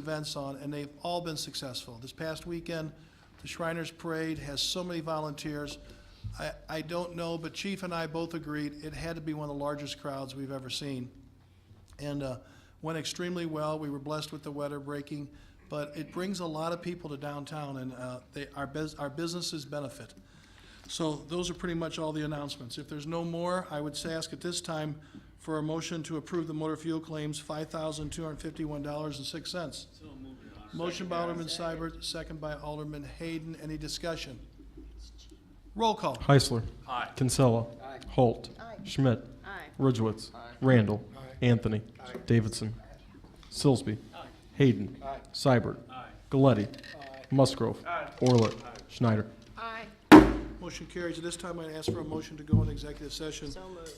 events on, and they've all been successful. This past weekend, the Shriners Parade has so many volunteers. I, I don't know, but Chief and I both agreed it had to be one of the largest crowds we've ever seen. And uh, went extremely well. We were blessed with the weather breaking, but it brings a lot of people to downtown, and uh, they, our, bus- our businesses benefit. So those are pretty much all the announcements. If there's no more, I would say ask at this time for a motion to approve the motor fuel claims, five thousand two hundred fifty-one dollars and six cents. Motion by Alderman Seibert, second by Alderman Hayden. Any discussion? Roll call. Heisler. Kinsella. Holt. Schmidt. Ridgewitz. Randall. Anthony. Davidson. Silsby. Hayden. Seibert. Galletti. Musgrove. Orlett. Schneider. Aye. Motion carries. At this time, I ask for a motion to go into executive session So moved.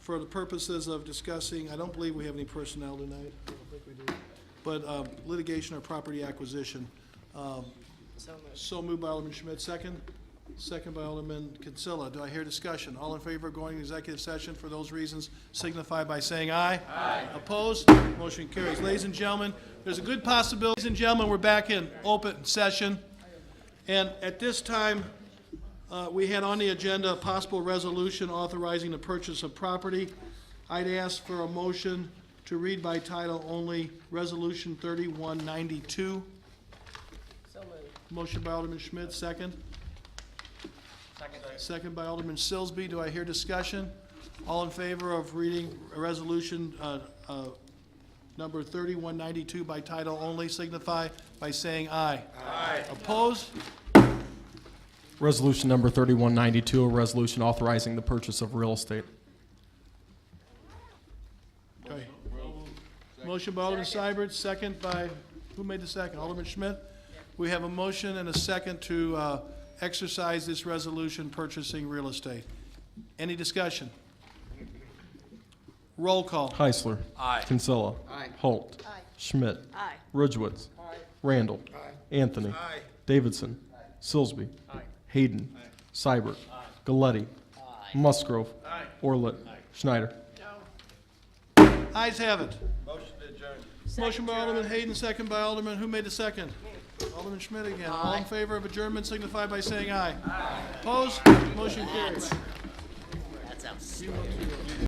for the purposes of discussing, I don't believe we have any personnel tonight. I don't think we do. But um, litigation or property acquisition. Um, So moved. So moved by Alderman Schmidt, second. Second by Alderman Kinsella. Do I hear discussion? All in favor of going to executive session for those reasons signify by saying aye. Aye. Opposed? Motion carries. Ladies and gentlemen, there's a good possibility, ladies and gentlemen, we're back in open session. And at this time, uh, we had on the agenda a possible resolution authorizing the purchase of property. I'd ask for a motion to read by title only, Resolution 3192. So moved. Motion by Alderman Schmidt, second. Second. Second by Alderman Silsby. Do I hear discussion? All in favor of reading Resolution uh, uh, Number 3192 by title only signify by saying aye. Aye. Opposed? Resolution number 3192, a resolution authorizing the purchase of real estate. Okay. Motion by Alderman Seibert, second by, who made the second? Alderman Schmidt? We have a motion and a second to uh, exercise this resolution purchasing real estate. Any discussion? Roll call. Heisler. Kinsella. Holt. Schmidt. Aye. Ridgewitz. Randall. Anthony. Davidson. Silsby. Hayden. Seibert. Galletti. Musgrove. Orlett. Schneider. Ayes have it. Motion by Alderman Hayden, second by Alderman, who made the second? Alderman Schmidt again. All in favor of adjournment signify by saying aye. Aye. Opposed? Motion carries. That's outstanding. You want to, uh,